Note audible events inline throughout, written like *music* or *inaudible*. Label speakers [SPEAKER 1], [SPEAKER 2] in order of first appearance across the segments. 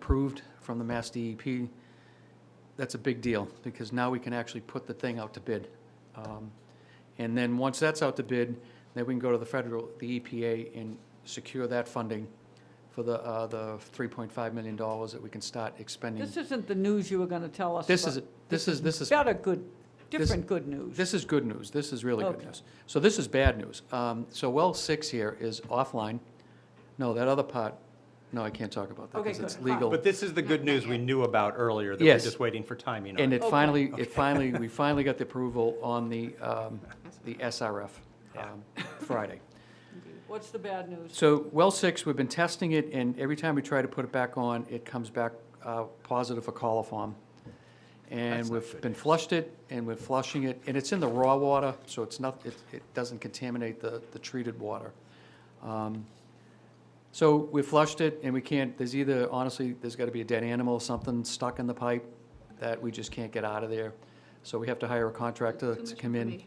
[SPEAKER 1] approved from the Mass DEP, that's a big deal, because now we can actually put the thing out to bid. Um, And then, once that's out to bid, then we can go to the federal, the EPA, and secure that funding for the, uh, the $3.5 million that we can start expending.
[SPEAKER 2] This isn't the news you were going to tell us
[SPEAKER 1] This
[SPEAKER 2] about.
[SPEAKER 1] is, this is, this is
[SPEAKER 2] Better good,
[SPEAKER 1] This-
[SPEAKER 2] different good news.
[SPEAKER 1] This is good news. This is really good
[SPEAKER 2] Okay.
[SPEAKER 1] news. So this is bad news. Um, So well six here is offline. No, that other part, no, I can't talk about that
[SPEAKER 2] Okay,
[SPEAKER 1] because it's
[SPEAKER 2] good. Fine.
[SPEAKER 1] legal.
[SPEAKER 3] But this is the good news we knew about earlier, that we're
[SPEAKER 1] Yes.
[SPEAKER 3] just waiting for timing on.
[SPEAKER 1] And it
[SPEAKER 2] Okay.
[SPEAKER 1] finally, it finally, we finally got the approval on the, um, the SRF um, Friday.
[SPEAKER 2] What's the bad news?
[SPEAKER 1] So well six, we've been testing it and every time we try to put it back on, it comes back uh, positive for coliform. And
[SPEAKER 3] That's not
[SPEAKER 1] we've
[SPEAKER 3] good
[SPEAKER 1] been flushed it and we're flushing it, and it's in the raw water, so it's not, it, it doesn't contaminate the, the treated water. Um, So we flushed it and we can't, there's either, honestly, there's gotta be a dead animal, something stuck in the pipe that we just can't get out of there. So we have to hire a contractor to come in.
[SPEAKER 2] You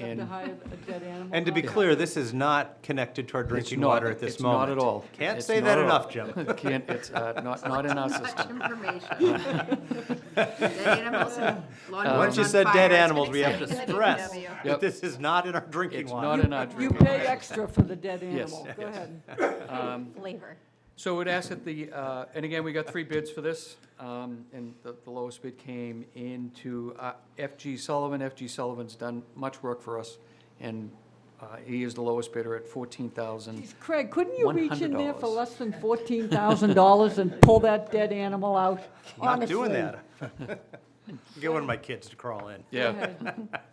[SPEAKER 2] have
[SPEAKER 1] and-
[SPEAKER 2] to hire a dead animal.
[SPEAKER 3] And to be
[SPEAKER 2] doctor?
[SPEAKER 3] clear, this is not connected to our drinking
[SPEAKER 1] not-
[SPEAKER 3] water at this
[SPEAKER 1] it's not
[SPEAKER 3] moment.
[SPEAKER 1] at all.
[SPEAKER 3] Can't
[SPEAKER 1] It's
[SPEAKER 3] say
[SPEAKER 1] not at
[SPEAKER 3] that
[SPEAKER 1] all.
[SPEAKER 3] enough, Jim.
[SPEAKER 1] *laughs* Can't, it's, uh, not, not in our system.
[SPEAKER 3] *laughs*
[SPEAKER 4] *laughs*
[SPEAKER 5] Much information. Dead animals and lawn
[SPEAKER 1] Um,
[SPEAKER 3] Uh, Once you
[SPEAKER 5] on
[SPEAKER 3] said
[SPEAKER 5] fire,
[SPEAKER 3] dead
[SPEAKER 5] it's been
[SPEAKER 3] animals, we have to
[SPEAKER 5] exciting.
[SPEAKER 3] stress
[SPEAKER 5] DPW.
[SPEAKER 1] Yep.
[SPEAKER 3] that this is not in our drinking
[SPEAKER 1] It's not
[SPEAKER 3] water.
[SPEAKER 1] in our
[SPEAKER 2] You
[SPEAKER 1] drinking
[SPEAKER 2] pay extra for the dead
[SPEAKER 1] Yes.
[SPEAKER 2] animal. Go ahead.
[SPEAKER 1] Um,
[SPEAKER 4] flavor.
[SPEAKER 1] So it asked that the, uh, and again, we got three bids for this, um, and the the lowest bid came into uh, FG Sullivan. FG Sullivan's done much work for us, and uh, he is the lowest bidder at fourteen thousand.
[SPEAKER 2] Geez, Craig, couldn't you reach in there for
[SPEAKER 1] $100.
[SPEAKER 2] less than $14,000 and pull that dead animal out?
[SPEAKER 5] *laughs*
[SPEAKER 3] Not doing
[SPEAKER 2] Honestly.
[SPEAKER 3] that. *laughs* Get one of my kids to crawl in.
[SPEAKER 2] Go ahead. *laughs*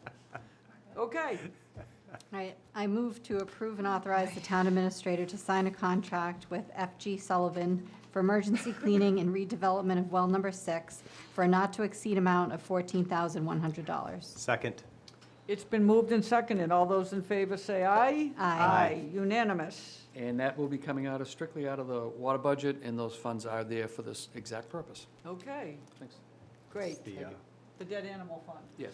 [SPEAKER 2] Okay,
[SPEAKER 4] All right, I move to approve and authorize the town administrator to sign a contract with FG Sullivan
[SPEAKER 3] *laughs*
[SPEAKER 4] for emergency cleaning and redevelopment of well number six for a not-to-exceed amount of $14,100.
[SPEAKER 3] Second.
[SPEAKER 2] it's been moved and seconded. All those in favor say aye.
[SPEAKER 4] Aye.
[SPEAKER 2] Aye, unanimous.
[SPEAKER 1] And that will be coming out of, strictly out of the water budget, and those funds are there for this exact purpose.
[SPEAKER 2] Okay,
[SPEAKER 1] Thanks.
[SPEAKER 2] great.
[SPEAKER 3] The, uh,
[SPEAKER 2] The dead animal fund.
[SPEAKER 1] Yes.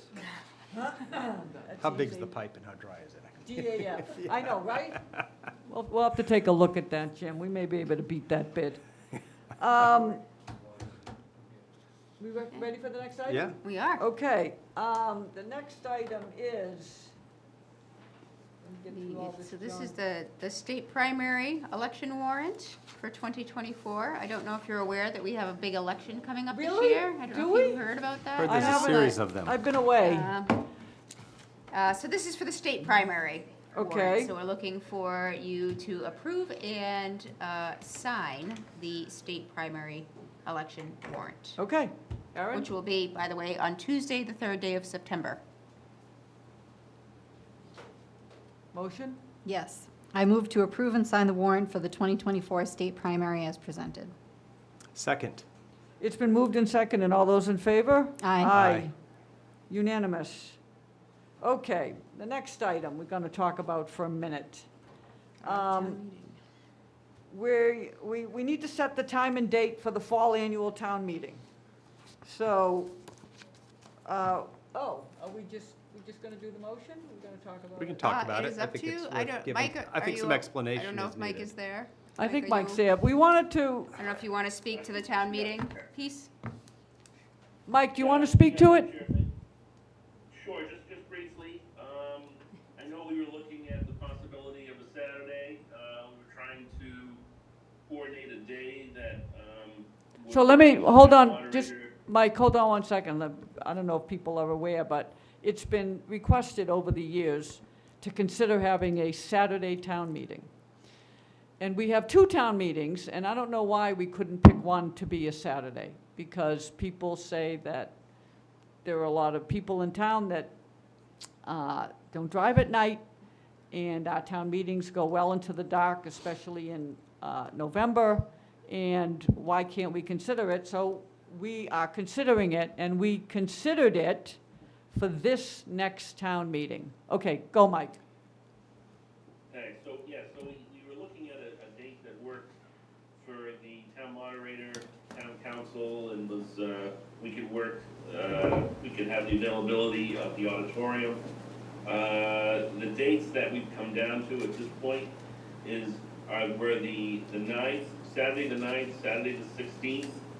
[SPEAKER 2] That's
[SPEAKER 3] How big's the
[SPEAKER 2] easy.
[SPEAKER 3] pipe and how dry is it? *laughs*
[SPEAKER 2] DAF, I know, right? We'll, we'll have to take a look at that, Jim, we may be able to beat that
[SPEAKER 3] *laughs*
[SPEAKER 2] bid. Um, We re- ready for the next item?
[SPEAKER 3] Yeah,
[SPEAKER 5] We are.
[SPEAKER 2] Okay, um, the next item is. let me get through all
[SPEAKER 5] So this
[SPEAKER 2] junk.
[SPEAKER 5] is the, the state primary election warrant for 2024. I don't know if you're aware that we have a big election coming up this
[SPEAKER 2] Really?
[SPEAKER 5] year. I don't know
[SPEAKER 2] Do
[SPEAKER 5] if
[SPEAKER 2] we?
[SPEAKER 5] you've heard about that. Uh,
[SPEAKER 3] heard
[SPEAKER 2] I
[SPEAKER 3] there's a
[SPEAKER 2] haven't-
[SPEAKER 3] series of them.
[SPEAKER 2] I've been away,
[SPEAKER 5] Um, uh, So this is for the state primary. warrant.
[SPEAKER 2] Okay.
[SPEAKER 5] So we're looking for you to approve and uh, sign the state primary election warrant,
[SPEAKER 2] okay, Aaron,
[SPEAKER 5] which will be, by the way, on Tuesday, the third day of September.
[SPEAKER 2] motion,
[SPEAKER 4] Yes, I move to approve and sign the warrant for the 2024 state primary as presented.
[SPEAKER 3] Second.
[SPEAKER 2] it's been moved and seconded. all those in favor?
[SPEAKER 4] Aye.
[SPEAKER 2] Aye,
[SPEAKER 3] Aye.
[SPEAKER 2] unanimous. Okay, the next item we're gonna talk about for a minute. Um, we, we, we need to set the time and date for the fall annual town meeting. So, uh, oh, are we just, we just gonna do the motion? We're gonna talk about
[SPEAKER 3] We can
[SPEAKER 2] it?
[SPEAKER 3] talk
[SPEAKER 5] Uh,
[SPEAKER 3] about it.
[SPEAKER 5] is
[SPEAKER 3] I
[SPEAKER 5] up
[SPEAKER 3] think
[SPEAKER 5] to
[SPEAKER 3] it's
[SPEAKER 5] you. I
[SPEAKER 3] worth
[SPEAKER 5] don't-
[SPEAKER 3] giving-
[SPEAKER 5] Mike,
[SPEAKER 3] I
[SPEAKER 5] are
[SPEAKER 3] think
[SPEAKER 5] you
[SPEAKER 3] some
[SPEAKER 5] up?
[SPEAKER 3] explanation
[SPEAKER 5] I
[SPEAKER 3] is
[SPEAKER 5] don't know if Mike
[SPEAKER 3] needed.
[SPEAKER 5] is there.
[SPEAKER 2] I think
[SPEAKER 5] are
[SPEAKER 2] Mike's
[SPEAKER 5] you-
[SPEAKER 2] there. We wanted to,
[SPEAKER 5] I don't know if you want to speak to the town meeting piece?
[SPEAKER 2] Mike, do you want to speak to it?
[SPEAKER 6] Sure, just, just briefly, um, I know we were looking at the possibility of a Saturday, uh, we were trying to coordinate a day that, um. would
[SPEAKER 2] So let me,
[SPEAKER 6] be
[SPEAKER 2] hold on, just,
[SPEAKER 6] moderator-
[SPEAKER 2] Mike, hold on one second. Let- I don't know if people are aware, but it's been requested over the years to consider having a Saturday town meeting. And we have two town meetings, and I don't know why we couldn't pick one to be a Saturday, because people say that there are a lot of people in town that uh, don't drive at night, and our town meetings go well into the dark, especially in uh, November, and why can't we consider it? So we are considering it, and we considered it for this next town meeting. Okay, go, Mike.
[SPEAKER 6] Okay, so, yeah, so we, we were looking at a, a date that worked for the town moderator, town council, and was, uh, we could work, uh, we could have the availability of the auditorium. Uh, the dates that we've come down to at this point uh, is, are, were the, the ninth, Saturday the ninth, Saturday the sixteenth,